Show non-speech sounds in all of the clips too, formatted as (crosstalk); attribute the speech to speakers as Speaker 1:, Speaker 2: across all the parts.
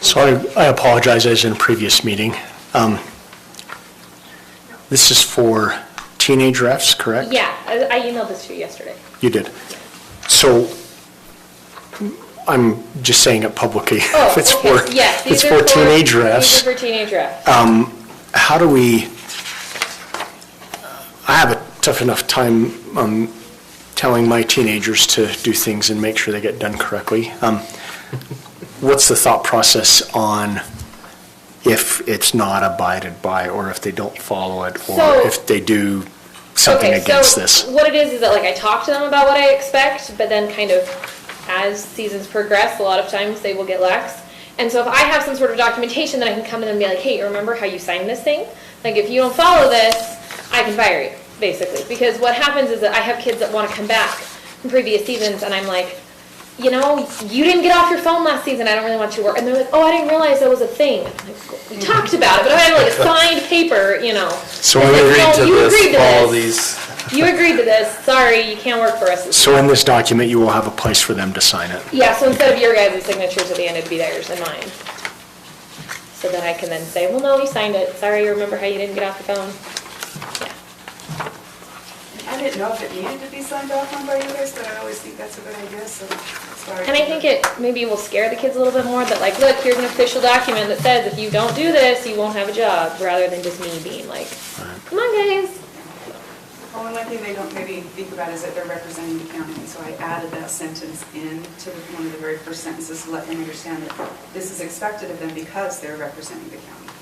Speaker 1: So I I apologize, as in a previous meeting. Um, This is for teenage refs, correct?
Speaker 2: Yeah, I I emailed this to you yesterday.
Speaker 1: You did. So I'm just saying it publicly. (laughs)
Speaker 2: Oh,
Speaker 1: It's
Speaker 2: okay,
Speaker 1: for,
Speaker 2: yes,
Speaker 1: it's
Speaker 2: these are
Speaker 1: for teenage
Speaker 2: These
Speaker 1: refs.
Speaker 2: are for teenage refs.
Speaker 1: How do we, I have a tough enough time um, telling my teenagers to do things and make sure they get done correctly. Um, What's the thought process on if it's not abided by, or if they don't follow it,
Speaker 2: So-
Speaker 1: or if they do something
Speaker 2: Okay,
Speaker 1: against
Speaker 2: so
Speaker 1: this?
Speaker 2: What it is is that like I talk to them about what I expect, but then kind of as seasons progress, a lot of times they will get lax. And so if I have some sort of documentation that I can come in and be like, hey, remember how you signed this thing? Like if you don't follow this, I can fire you, basically. Because what happens is that I have kids that want to come back from previous seasons and I'm like, you know, you didn't get off your phone last season. I don't really want you to work. And they're like, oh, I didn't realize that was a thing. I'm like, We talked about it, but I have like a signed paper, you know.
Speaker 1: So
Speaker 2: It's
Speaker 1: when we
Speaker 2: like,
Speaker 1: read
Speaker 2: no,
Speaker 1: to
Speaker 2: you agreed
Speaker 1: this,
Speaker 2: to
Speaker 3: all
Speaker 2: this.
Speaker 3: these,
Speaker 2: You agreed to this, sorry, you can't work for us.
Speaker 1: So in this document, you will have a place for them to sign it.
Speaker 2: Yeah, so instead of your guys' signatures at the end, it'd be theirs and mine. So then I can then say, well, no, you signed it, sorry, remember how you didn't get off the phone?
Speaker 4: I didn't know if it needed to be signed off on by you guys, but I always think that's a good idea, so sorry.
Speaker 2: And I think it maybe will scare the kids a little bit more that like, look, here's an official document that says if you don't do this, you won't have a job, rather than just me being like, come on, guys.
Speaker 4: Only one thing they don't maybe think about is that they're representing the county, so I added that sentence in to one of the very first sentences to let them understand that this is expected of them because they're representing the county.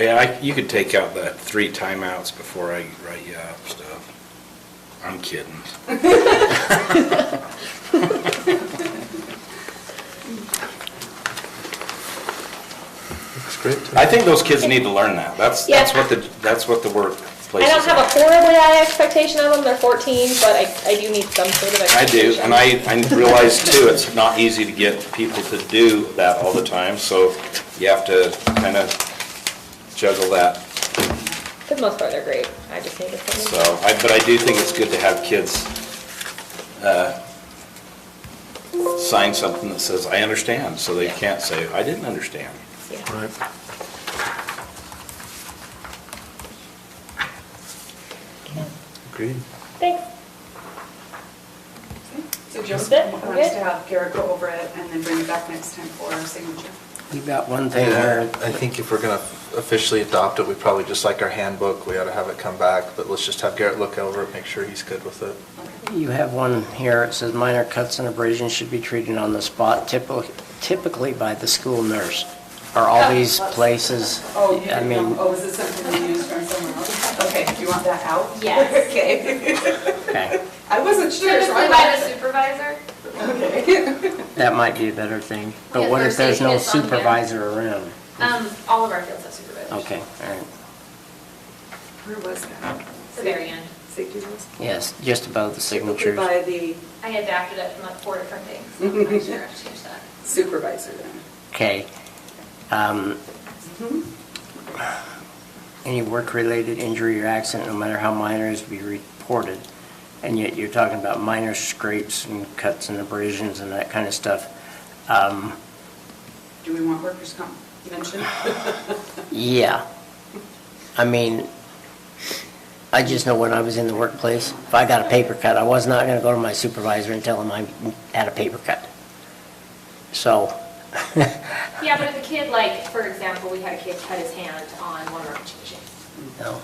Speaker 3: yeah, I- you could take out that three timeouts before I write you up stuff. I'm kidding.
Speaker 5: That's great.
Speaker 3: I think those kids need to learn that. That's,
Speaker 2: Yeah.
Speaker 3: that's what the, that's what the workplace
Speaker 2: I
Speaker 3: is.
Speaker 2: don't have a horribly high expectation of them, they're fourteen, but I, I do need some sort of
Speaker 3: I
Speaker 2: expectation.
Speaker 3: do, and I, I realize too, it's not easy to get people to do that all the time, so you have to kind of juggle that.
Speaker 2: For the most part, they're great, I just need to. send
Speaker 3: So,
Speaker 2: them.
Speaker 3: I, but I do think it's good to have kids, uh, sign something that says, I understand, so they can't say, I didn't understand.
Speaker 2: Yeah.
Speaker 1: Right.
Speaker 5: Agreed.
Speaker 2: Thanks.
Speaker 4: So Joe
Speaker 2: That's it?
Speaker 4: wants
Speaker 2: Okay.
Speaker 4: to have Garrett go over it and then bring it back next time for our signature.
Speaker 6: You've got one thing
Speaker 5: And
Speaker 6: where,
Speaker 5: I think if we're going to officially adopt it, we probably, just like our handbook, we ought to have it come back, but let's just have Garrett look over it, make sure he's good with it.
Speaker 6: you have one here, it says minor cuts and abrasions should be treated on the spot typically typically by the school nurse. Are all these places,
Speaker 4: Oh, you
Speaker 6: I
Speaker 4: didn't know-
Speaker 6: mean,
Speaker 4: oh, is it something you used from somewhere else? (laughs) Okay, do you want that out?
Speaker 7: Yes.
Speaker 4: (laughs) Okay.
Speaker 6: okay,
Speaker 4: I wasn't sure, so I
Speaker 7: Typically by the supervisor.
Speaker 6: that might be a better thing.
Speaker 7: Yeah,
Speaker 6: But what if there's no
Speaker 7: Thursday is on here.
Speaker 6: supervisor around?
Speaker 7: Um, all of our fields have supervisors.
Speaker 6: Okay, all right.
Speaker 4: Where was that?
Speaker 7: The very end.
Speaker 4: Safety rules?
Speaker 6: Yes, just above the signatures.
Speaker 4: By the
Speaker 7: I had backed it up from like four different
Speaker 4: (laughs)
Speaker 7: things. so I'm not sure I have to change that.
Speaker 4: supervisor then.
Speaker 6: Okay. Um, Any work-related injury or accident, no matter how minor, is to be reported. And yet you're talking about minor scrapes and cuts and abrasions and that kind of stuff. Um,
Speaker 4: Do we want workers' comp mentioned?
Speaker 6: Yeah. I mean, I just know when I was in the workplace, if I got a paper cut, I was not gonna go to my supervisor and tell him I had a paper cut. So, (laughs)
Speaker 7: Yeah, but if a kid, like, for example, we had a kid cut his hand on one of our pitching machines.
Speaker 6: no,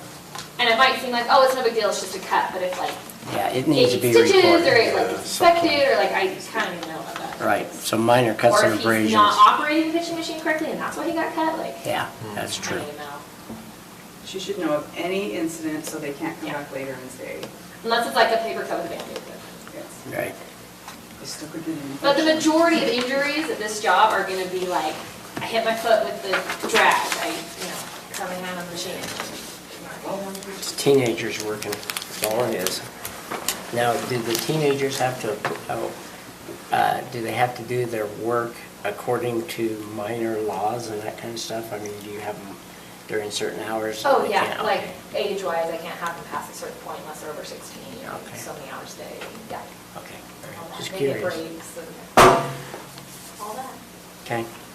Speaker 7: And it might seem like, oh, it's no big deal, it's just a cut, but if like,
Speaker 6: yeah, it needs to
Speaker 7: it
Speaker 6: be
Speaker 7: stitches
Speaker 6: reported.
Speaker 7: or it like
Speaker 5: yeah,
Speaker 7: is infected, or like, I kind of know about that.
Speaker 6: Right, so minor cuts
Speaker 7: Or
Speaker 6: and
Speaker 7: if he's
Speaker 6: abrasions.
Speaker 7: not operating the pitching machine correctly and that's why he got cut, like, I
Speaker 6: Yeah, that's
Speaker 2: Hmm.
Speaker 6: true.
Speaker 7: don't even know.
Speaker 4: She should know of any incident so they can't come back later and say,
Speaker 7: Unless it's like a paper cut with a band-aid.
Speaker 4: yes,
Speaker 6: Right.
Speaker 4: they still could be in.
Speaker 7: But the majority of injuries at this job are gonna be like, I hit my foot with the drag, I, you know, coming out of the machine.
Speaker 6: It's teenagers working, that's all it is. Now, do the teenagers have to, oh, uh, do they have to do their work according to minor laws and that kind of stuff? I mean, do you have them during certain hours?
Speaker 7: Oh,
Speaker 6: They
Speaker 7: yeah,
Speaker 6: can't-
Speaker 7: like
Speaker 6: okay,
Speaker 7: age-wise, I can't have them past a certain point unless they're over sixteen, you know,
Speaker 6: Okay.
Speaker 7: so many hours a day, yeah.
Speaker 6: Okay,
Speaker 7: All
Speaker 6: all right,
Speaker 7: that.
Speaker 6: just
Speaker 7: They get
Speaker 6: curious.
Speaker 7: breaks and all that.
Speaker 6: Okay.